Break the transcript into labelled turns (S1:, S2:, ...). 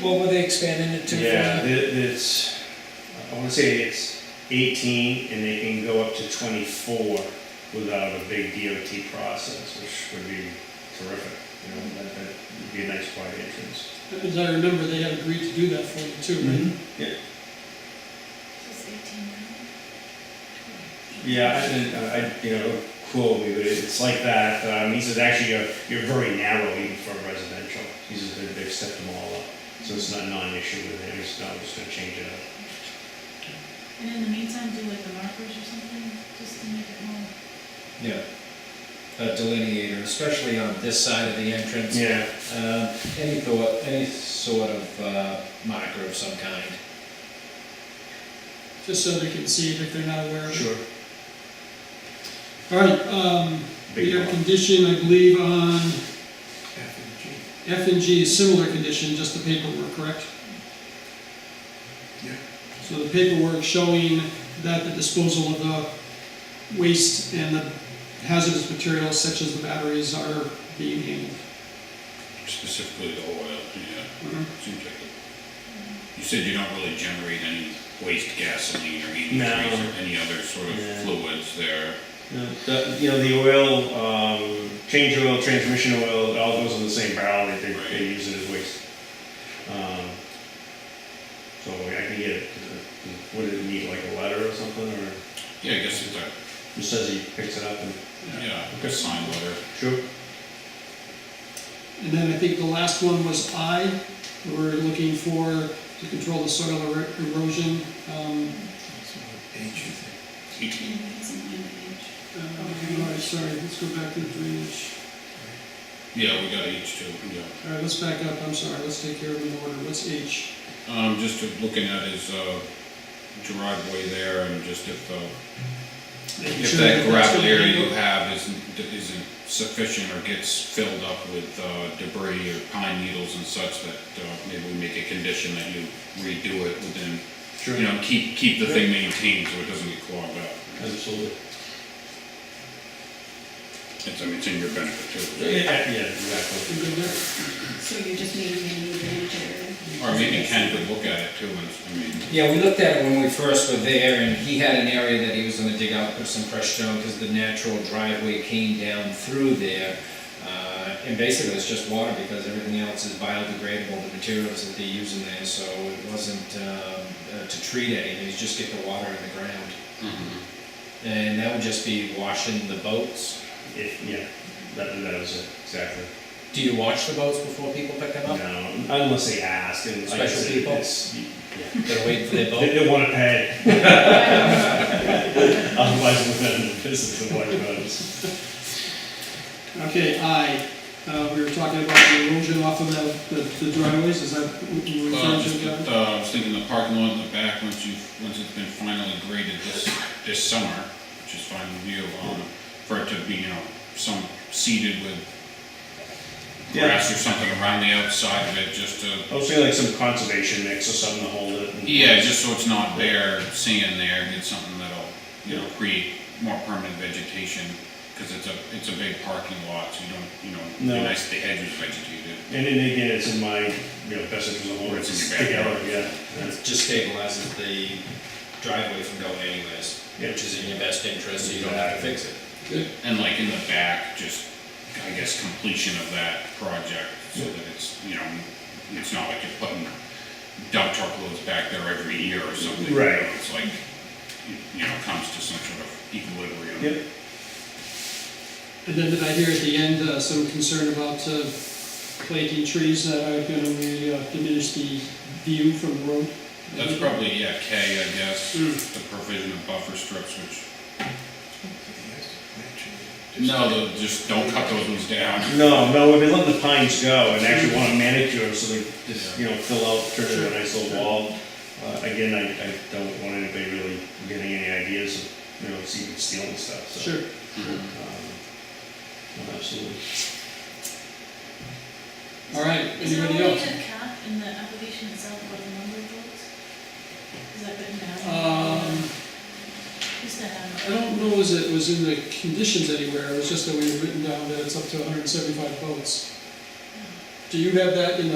S1: What were they expanding it to? from?
S2: Yeah, th- it's, I wanna say it's eighteen and they can go up to twenty-four without a big DOT process, which would be terrific. You know, that, that would be a nice wide entrance.
S1: As I remember, they had agreed to do that for you too, right?
S2: Yeah,
S3: This is eighteen now?
S2: yeah, I didn't, I, I- you know, cool, but it- it's like that, um, these is actually, you're, you're very narrow even for residential. These are, they've stepped them all up, so it's not, not an issue with them, it's not, just gonna change it up.
S3: And in the meantime, do like the markers or something, just to make it more.
S4: Yeah. A delineator, especially on this side of the entrance.
S2: Yeah,
S4: Uh, any thought, any sort of, uh, marker of some kind.
S2: Mm-hmm.
S1: Just so they can see it if they're not aware of it.
S2: sure.
S1: All right, um, we
S2: Big
S1: have
S2: one.
S1: condition, I believe, on F and G, is similar condition, just the paperwork, correct?
S5: Yeah.
S1: So the paperwork showing that the disposal of the waste and the hazardous materials such as the batteries are being handled.
S5: Specifically the oil, yeah,
S1: Mhm.
S5: seems like it. You said you don't really generate any waste gasoline or antifreeze
S2: No.
S5: or any other sort of
S2: Yeah.
S5: fluids there.
S2: No, The, you know, the oil, um, change oil, transmission oil, it all goes in the same barrel, they, they, they use it as waste. Um, So I can get, it. what did it need, like a letter or something, or
S5: Yeah, I guess it's a,
S2: just says he picks it up and?
S5: yeah, a sign letter.
S2: Sure.
S1: And then I think the last one was I, we're looking for to control the soil er- erosion. um,
S3: Yeah, it's in the page.
S1: uh, all right, Sorry, let's go back to the drainage.
S5: Yeah, we got H two, yeah.
S1: All right, let's back up, I'm sorry, let's take care of the order, what's H?
S5: Um, just to- looking at his, uh, driveway there and just if, uh, if
S1: Sure,
S5: that
S1: that's
S5: gravel
S1: gonna
S5: area
S1: handle-
S5: you have isn't, isn't sufficient or gets filled up with, uh, debris or pine needles and such that, uh, maybe we make a condition that you redo it within
S2: Sure.
S5: you know, keep, keep the thing maintained so it doesn't get clogged up.
S2: Absolutely.
S5: It's, I mean, it's in your benefit too.
S2: Yeah, yeah, exactly.
S1: You good there?
S6: So you're just meeting the new manager?
S5: Or maybe Ken could look at it too, and, I mean,
S4: Yeah, we looked at it when we first were there, and he had an area that he was gonna dig out, put some fresh stone, because the natural driveway came down through there. Uh, And basically, it's just water, because everything else is biodegradable, the materials that they use in there, so it wasn't um, uh, to treat anything, it's just get the water in the ground. And that would just be washing the boats.
S2: If, yeah, that, that was it, exactly.
S4: Do you wash the boats before people pick them up?
S2: No, unless they ask and. like I
S4: Uh-huh. Special
S2: said,
S4: people? Oh.
S2: it's- Yeah.
S4: They're waiting for their boat?
S2: They, they wanna pay. Otherwise, we're not in the business of white voters.
S1: Okay, I, uh, we were talking about the erosion off of the, the- the driveways, is that what you were
S5: well,
S1: referring to?
S5: just,
S1: Gavin?
S5: uh, I was thinking the parking lot in the back, once you, once it's been finally graded this, this summer, which is fine with you, um, for it to be, you know, some seeded with
S2: Yeah.
S5: grass or something around the outside of it, just to
S2: I was thinking like some conservation mix or something to hold it. in
S5: Yeah,
S2: place.
S5: just so it's not bare sand there, get something that'll, you know, create more permanent vegetation, because it's a, it's a big parking lot, so you don't, you know, it'd
S2: No.
S5: be nice if the edge was vegetated.
S2: And then again, it's in my, you know, best interest of holding it
S5: It's in your
S2: together,
S5: backyard.
S2: yeah. yeah.
S4: It just stabilizes the driveway from going anyways,
S2: Yeah.
S4: which is in your best interest, so you don't have to fix it.
S5: And like in the back, just, I guess, completion of that project, so that it's, you know, it's not like you're putting dump truck loads back there every year or something. you know,
S2: Right.
S5: It's like, you- you know, comes to some sort of equilibrium.
S2: Yep.
S1: And then did I hear at the end, uh, some concern about, uh, planting trees that are gonna really uh, diminish the view from the road?
S5: That's probably, yeah, K, I guess,
S2: Hmm.
S1: Mm.
S5: the provision of buffer strips, which No, the- just don't cut those ones down.
S2: No, no, we've been letting the pines go and actually want to manicure them so they just, you know, fill out, turn it into a nice little wall. Uh, again, I, I don't want anybody really getting any ideas of, you know, it's even stealing stuff, so.
S1: Sure.
S2: um, no, Absolutely.
S1: All right,
S3: Is there a
S1: anybody
S3: way
S1: else?
S3: to cap in the application itself what the number of votes? Is that written down?
S1: Um, uh,
S3: Used to
S1: I
S3: have.
S1: don't know as it was in the conditions anywhere, it was just that we had written down that it's up to hundred and seventy-five votes. Do you have that in the